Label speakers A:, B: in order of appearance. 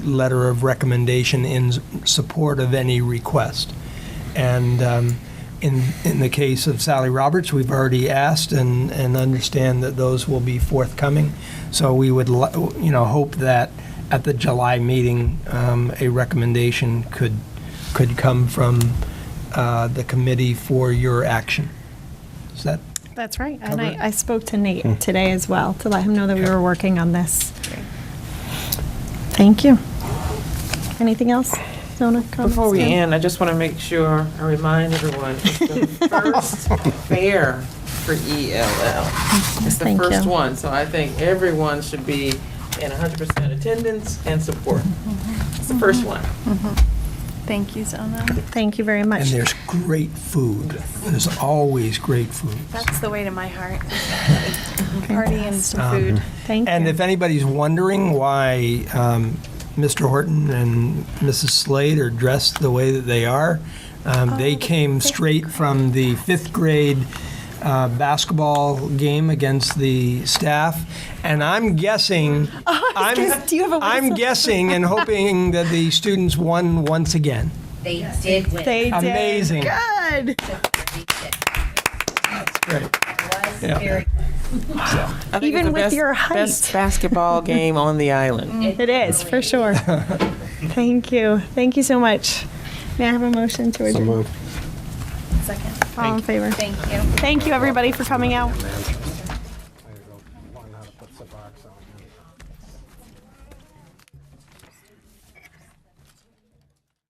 A: letter of recommendation in s- support of any request. And um, in, in the case of Sally Roberts, we've already asked and, and understand that those will be forthcoming. So we would, li- you know, hope that at the July meeting, um, a recommendation could, could come from uh, the committee for your action. Is that
B: That's right. And
A: Cover it. Hmm.
B: I, I spoke to Nate today as well to let him know that we
A: Okay.
B: were working on this. Thank you. Anything else? Nona, comments?
C: Before we
B: Dan?
C: end, I just want to make sure I remind everyone, it's the first fair for ELL. It's the
B: Thank
C: first
B: you.
C: one, so I think everyone should be in 100% attendance and support. It's the
B: Mm-hmm.
C: first one.
D: Thank you, Zona.
B: Thank you very much.
A: And there's great food. There's always great food.
D: That's the way to my heart. Party and some
A: Um,
D: food.
B: Thank
A: And
B: you.
A: if anybody's wondering why um, Mr. Horton and Mrs. Slade are dressed the way that they are, um,
B: Oh,
A: they came straight from the fifth grade uh, basketball game against the staff, and I'm guessing, I'm,
B: Oh, gonna- do you have a
A: I'm
B: whistle?
A: guessing and hoping that the students won once again.
E: They did win.
B: They did.
A: Amazing.
B: Good.
A: Great.
E: It was
A: Yeah.
E: very
C: I think it's
B: Even
C: the
B: with
C: best-
B: your height.
C: Best basketball game on the island.
B: It is, for sure. Thank you. Thank you so much. May I have a motion to adjourn?
D: Second.
B: All in favor?
D: Thank you.
B: Thank you, everybody, for coming out.